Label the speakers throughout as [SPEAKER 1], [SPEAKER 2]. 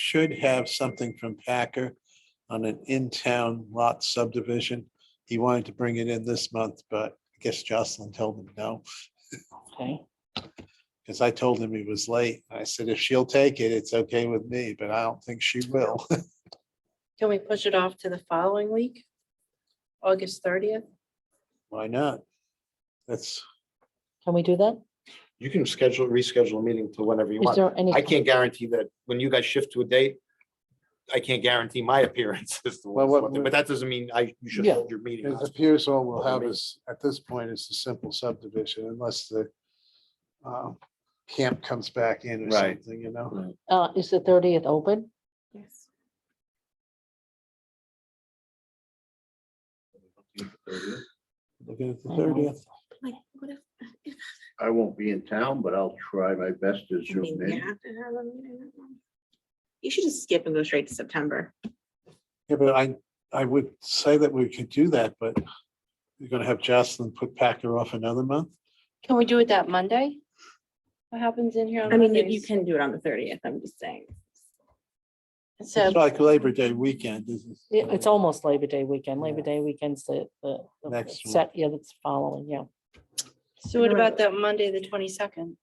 [SPEAKER 1] should have something from Packer on an in-town lot subdivision. He wanted to bring it in this month, but I guess Jocelyn told him no,
[SPEAKER 2] Okay,
[SPEAKER 1] because I told him he was late. I said, if she'll take it, it's okay with me, but I don't think she will.
[SPEAKER 3] Can we push it off to the following week? August thirtieth?
[SPEAKER 1] Why not? That's,
[SPEAKER 2] can we do that?
[SPEAKER 4] You can schedule, reschedule a meeting to whenever you
[SPEAKER 2] Is
[SPEAKER 4] want.
[SPEAKER 2] there any,
[SPEAKER 4] I can't guarantee that when you guys shift to a date, I can't guarantee my appearance. as to
[SPEAKER 1] Well,
[SPEAKER 4] what's
[SPEAKER 1] what
[SPEAKER 4] what day, But that doesn't mean I, you should
[SPEAKER 2] Yeah.
[SPEAKER 4] hold your meeting.
[SPEAKER 1] it appears all we'll have is, at this point, is a simple subdivision unless the um, camp comes back in or
[SPEAKER 4] Right.
[SPEAKER 1] something, you know?
[SPEAKER 2] uh, is the thirtieth open?
[SPEAKER 3] Yes.
[SPEAKER 1] Looking at the
[SPEAKER 2] I know.
[SPEAKER 1] thirtieth.
[SPEAKER 3] Like, what if, if,
[SPEAKER 5] I won't be in town, but I'll try my best to
[SPEAKER 3] I mean,
[SPEAKER 5] zoom
[SPEAKER 3] you
[SPEAKER 5] in.
[SPEAKER 3] have to have a meeting. that month. You should just skip and go straight to September.
[SPEAKER 1] Yeah, but I, I would say that we could do that, but you're gonna have Jocelyn put Packer off another month?
[SPEAKER 6] Can we do it that Monday? What happens in here on
[SPEAKER 3] I mean, you- you
[SPEAKER 6] Mondays?
[SPEAKER 3] can do it on the thirtieth, I'm just saying.
[SPEAKER 6] So,
[SPEAKER 1] It's like Labor Day weekend, isn't
[SPEAKER 2] Yeah, It's almost Labor Day weekend. Labor
[SPEAKER 1] Yeah.
[SPEAKER 2] Day weekend's the, the. the- the
[SPEAKER 1] Next one.
[SPEAKER 2] Set, yeah, that's following, yeah.
[SPEAKER 6] so what about that Monday, the twenty-second?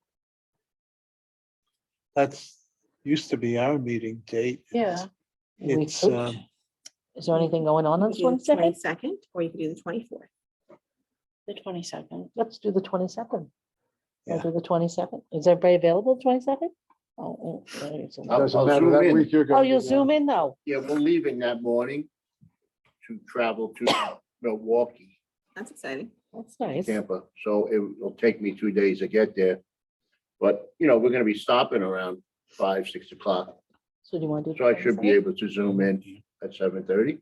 [SPEAKER 1] That's, used to be our meeting date.
[SPEAKER 6] Yeah.
[SPEAKER 2] We
[SPEAKER 1] It's,
[SPEAKER 2] could.
[SPEAKER 1] um,
[SPEAKER 2] Is there anything going on on the twenty-second?
[SPEAKER 3] Twenty-second, or you could do the twenty-fourth.
[SPEAKER 6] The twenty-second.
[SPEAKER 2] Let's do the twenty-second. We'll
[SPEAKER 1] Yeah.
[SPEAKER 2] do the twenty-second. Is everybody available twenty-second? Oh, oh, there is a-
[SPEAKER 5] I'll-
[SPEAKER 1] Doesn't
[SPEAKER 5] I'll
[SPEAKER 1] matter
[SPEAKER 5] zoom
[SPEAKER 1] that
[SPEAKER 5] in.
[SPEAKER 1] week you're
[SPEAKER 2] oh,
[SPEAKER 1] gonna.
[SPEAKER 2] you'll zoom in though.
[SPEAKER 5] Yeah, we're leaving that morning to travel to Milwaukee,
[SPEAKER 3] That's exciting.
[SPEAKER 2] That's nice.
[SPEAKER 5] Tampa. So it will take me two days to get there. But, you know, we're gonna be stopping around five, six o'clock,
[SPEAKER 2] So do you want to do?
[SPEAKER 5] so I should be
[SPEAKER 2] 22nd?
[SPEAKER 5] able to zoom in at seven thirty.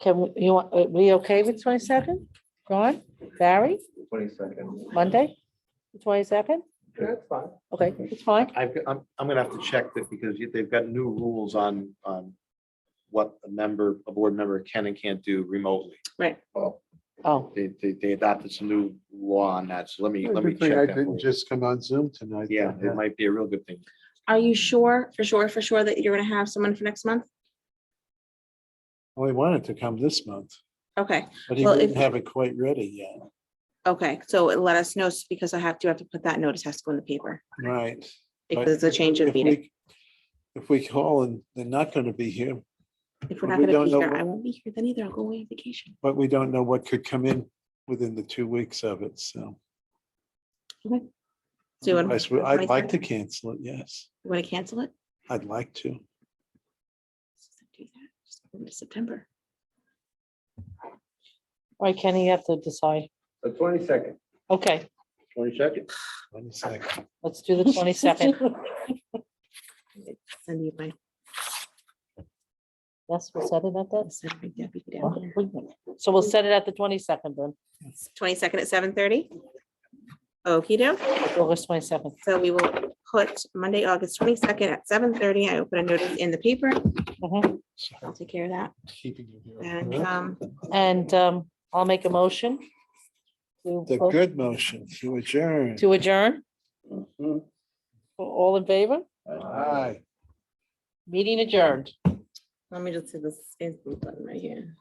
[SPEAKER 2] Can, we- you want, are we okay with twenty-second? Ron, Barry,
[SPEAKER 4] Twenty second.
[SPEAKER 2] Monday, twenty-second?
[SPEAKER 4] That's fine.
[SPEAKER 2] Okay, it's fine.
[SPEAKER 4] I've, got- I'm, I'm gonna have to check that because you- they've got new rules on, on what a member, a board member can and can't do remotely.
[SPEAKER 3] Right.
[SPEAKER 4] Well,
[SPEAKER 2] Oh,
[SPEAKER 4] they, they, they adopted some new law on that, so let me, let me
[SPEAKER 1] Good thing
[SPEAKER 4] check
[SPEAKER 1] I
[SPEAKER 4] that. for
[SPEAKER 1] didn't
[SPEAKER 4] you.
[SPEAKER 1] just come on Zoom tonight.
[SPEAKER 4] Yeah, it
[SPEAKER 1] then.
[SPEAKER 4] might be a real good thing.
[SPEAKER 3] Are you sure, for sure, for sure that you're gonna have someone for next month?
[SPEAKER 1] Well, he wanted to come this month,
[SPEAKER 3] Okay,
[SPEAKER 1] but he
[SPEAKER 3] Well, if-
[SPEAKER 1] didn't have it quite ready yet.
[SPEAKER 3] okay, so let us know, s- because I have to, have to put that notice, has to go in the paper,
[SPEAKER 1] Right. but
[SPEAKER 3] because it's a change of
[SPEAKER 1] if we-
[SPEAKER 3] meeting.
[SPEAKER 1] If we call and they're not gonna be here,
[SPEAKER 3] If
[SPEAKER 1] we
[SPEAKER 3] we're not gonna
[SPEAKER 1] don't
[SPEAKER 3] be
[SPEAKER 1] know
[SPEAKER 3] here,
[SPEAKER 1] what-
[SPEAKER 3] I won't be here then either, I'll go away on vacation.
[SPEAKER 1] but we don't know what could come in within the two weeks of it, so.
[SPEAKER 3] So you
[SPEAKER 1] Otherwise,
[SPEAKER 3] want
[SPEAKER 1] we- I'd like
[SPEAKER 3] 22nd?
[SPEAKER 1] to cancel it, yes.
[SPEAKER 3] to cancel it?
[SPEAKER 1] I'd like to.
[SPEAKER 3] Do that, just go into September.
[SPEAKER 2] all right, Kenny, you have to decide.
[SPEAKER 5] The twenty second.
[SPEAKER 2] Okay,
[SPEAKER 5] Twenty second.
[SPEAKER 1] One second.
[SPEAKER 2] let's do the twenty-second.
[SPEAKER 3] Send you my,
[SPEAKER 2] Yes, we'll set it at
[SPEAKER 3] I'll
[SPEAKER 2] that.
[SPEAKER 3] send my deputy down here.
[SPEAKER 2] So we'll set it at the twenty-second then,
[SPEAKER 3] twenty-second at seven thirty. Okey doke,
[SPEAKER 2] August twenty-seventh.
[SPEAKER 3] so we will put Monday, August twenty-second at seven thirty, I will put a notice in the paper, I'll take care of that,
[SPEAKER 1] Keeping you here.
[SPEAKER 3] and,
[SPEAKER 1] Huh?
[SPEAKER 3] um,
[SPEAKER 2] And um, I'll make a motion. to
[SPEAKER 1] The
[SPEAKER 2] vote-
[SPEAKER 1] good motion to adjourn.
[SPEAKER 2] To adjourn,
[SPEAKER 1] Mm-hmm.
[SPEAKER 2] all in favor?
[SPEAKER 1] Aye.
[SPEAKER 2] Meeting adjourned.
[SPEAKER 3] let me just hit this Facebook button right here.